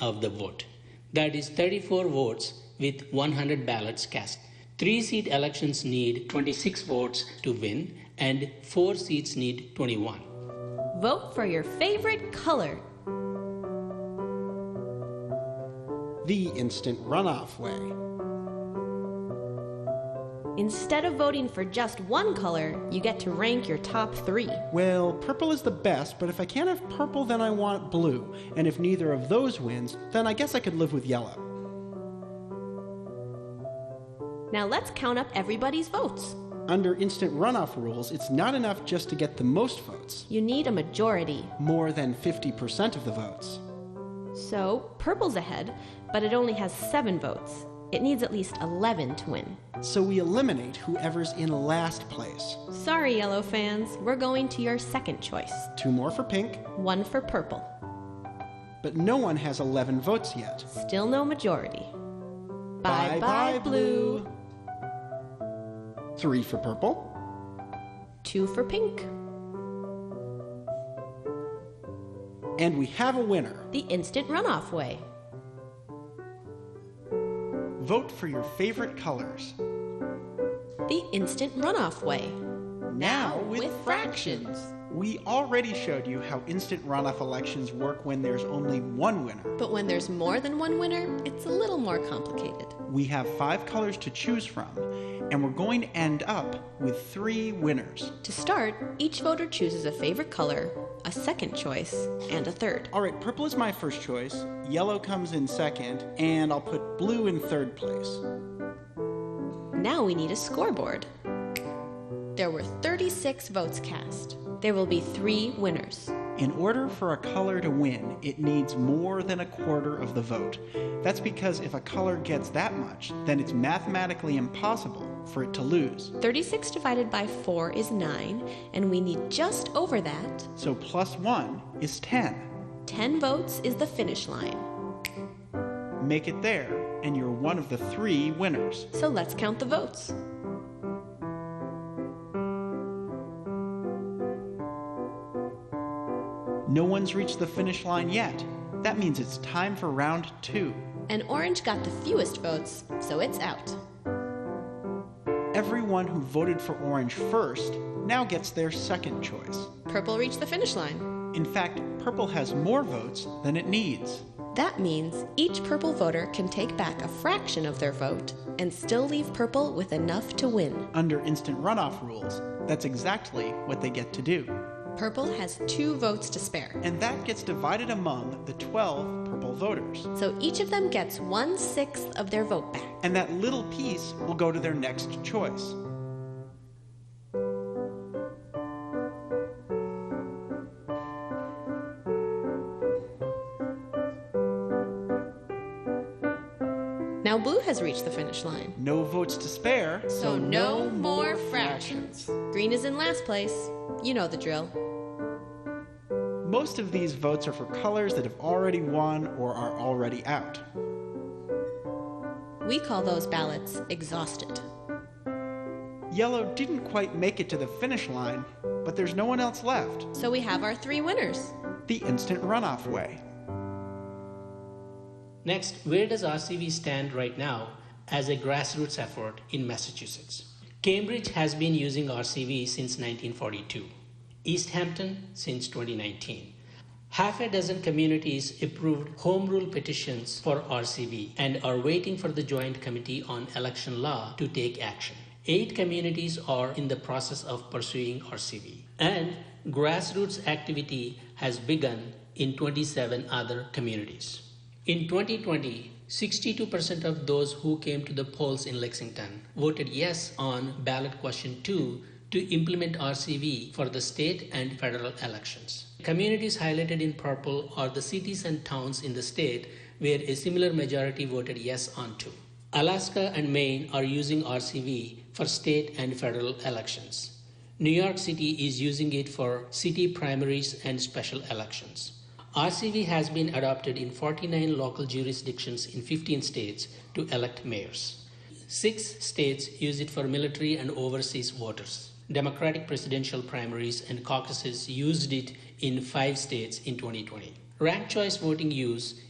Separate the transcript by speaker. Speaker 1: of the vote. That is 34 votes with 100 ballots cast. Three seat elections need 26 votes to win, and four seats need 21.
Speaker 2: Vote for your favorite color.
Speaker 3: the instant runoff way.
Speaker 2: Instead of voting for just one color, you get to rank your top three.
Speaker 3: Well, purple is the best, but if I can't have purple, then I want blue. And if neither of those wins, then I guess I could live with yellow.
Speaker 2: Now let's count up everybody's votes.
Speaker 3: Under instant runoff rules, it's not enough just to get the most votes,
Speaker 2: You need a majority.
Speaker 3: more than 50% of the votes.
Speaker 2: So, purple's ahead, but it only has seven votes. It needs at least 11 to win.
Speaker 3: So we eliminate whoever's in last place.
Speaker 2: Sorry, yellow fans, we're going to your second choice
Speaker 3: Two more for pink,
Speaker 2: one for purple.
Speaker 3: but no one has 11 votes yet.
Speaker 2: Still no majority.
Speaker 3: Bye
Speaker 2: Bye bye, blue.
Speaker 3: Three for purple,
Speaker 2: Two for pink.
Speaker 3: and we have a winner.
Speaker 2: The instant runoff way.
Speaker 3: Vote for your favorite colors.
Speaker 2: The instant runoff way.
Speaker 3: Now
Speaker 2: fractions.
Speaker 3: We already showed you how instant runoff elections work when there's only one winner.
Speaker 2: But when there's more than one winner, it's a little more complicated.
Speaker 3: We have five colors to choose from, and we're going to end up with three winners.
Speaker 2: To start, each voter chooses a favorite color, a second choice, and a third.
Speaker 3: All right, purple is my first choice, yellow comes in second, and I'll put blue in third place.
Speaker 2: Now we need a scoreboard. There were 36 votes cast. There will be three winners.
Speaker 3: In order for a color to win, it needs more than a quarter of the vote. That's because if a color gets that much, then it's mathematically impossible for it to lose.
Speaker 2: 36 divided by 4 is 9, and we need just over that.
Speaker 3: So plus one is 10.
Speaker 2: 10 votes is the finish line.
Speaker 3: Make it there, and you're one of the three winners.
Speaker 2: So let's count the votes.
Speaker 3: No one's reached the finish line yet. That means it's time for round two.
Speaker 2: And orange got the fewest votes, so it's out.
Speaker 3: Everyone who voted for orange first now gets their second choice.
Speaker 2: Purple reached the finish line.
Speaker 3: In fact, purple has more votes than it needs.
Speaker 2: That means each purple voter can take back a fraction of their vote and still leave purple with enough to win.
Speaker 3: Under instant runoff rules, that's exactly what they get to do.
Speaker 2: Purple has two votes to spare,
Speaker 3: And that gets divided among the 12 purple voters.
Speaker 2: so each of them gets one sixth of their vote back.
Speaker 3: And that little piece will go to their next choice.
Speaker 2: Now blue has reached the finish line.
Speaker 3: No votes to spare,
Speaker 2: So no more fractions. Green is in last place. You know the drill.
Speaker 3: Most of these votes are for colors that have already won or are already out.
Speaker 2: We call those ballots exhausted.
Speaker 3: Yellow didn't quite make it to the finish line, but there's no one else left.
Speaker 2: So we have our three winners.
Speaker 3: The instant runoff way.
Speaker 1: Next, where does RCV stand right now as a grassroots effort in Massachusetts? Cambridge has been using RCV since 1942, East Hampton since 2019. Half a dozen communities approved home rule petitions for RCV and are waiting for the Joint Committee on Election Law to take action. Eight communities are in the process of pursuing RCV, and grassroots activity has begun in 27 other communities. In 2020, 62% of those who came to the polls in Lexington voted yes on ballot question 2 to implement RCV for the state and federal elections. Communities highlighted in purple are the cities and towns in the state where a similar majority voted yes on 2. Alaska and Maine are using RCV for state and federal elections. New York City is using it for city primaries and special elections. RCV has been adopted in 49 local jurisdictions in 15 states to elect mayors. Six states use it for military and overseas voters. Democratic presidential primaries and caucuses used it in five states in 2020. Ranked choice voting use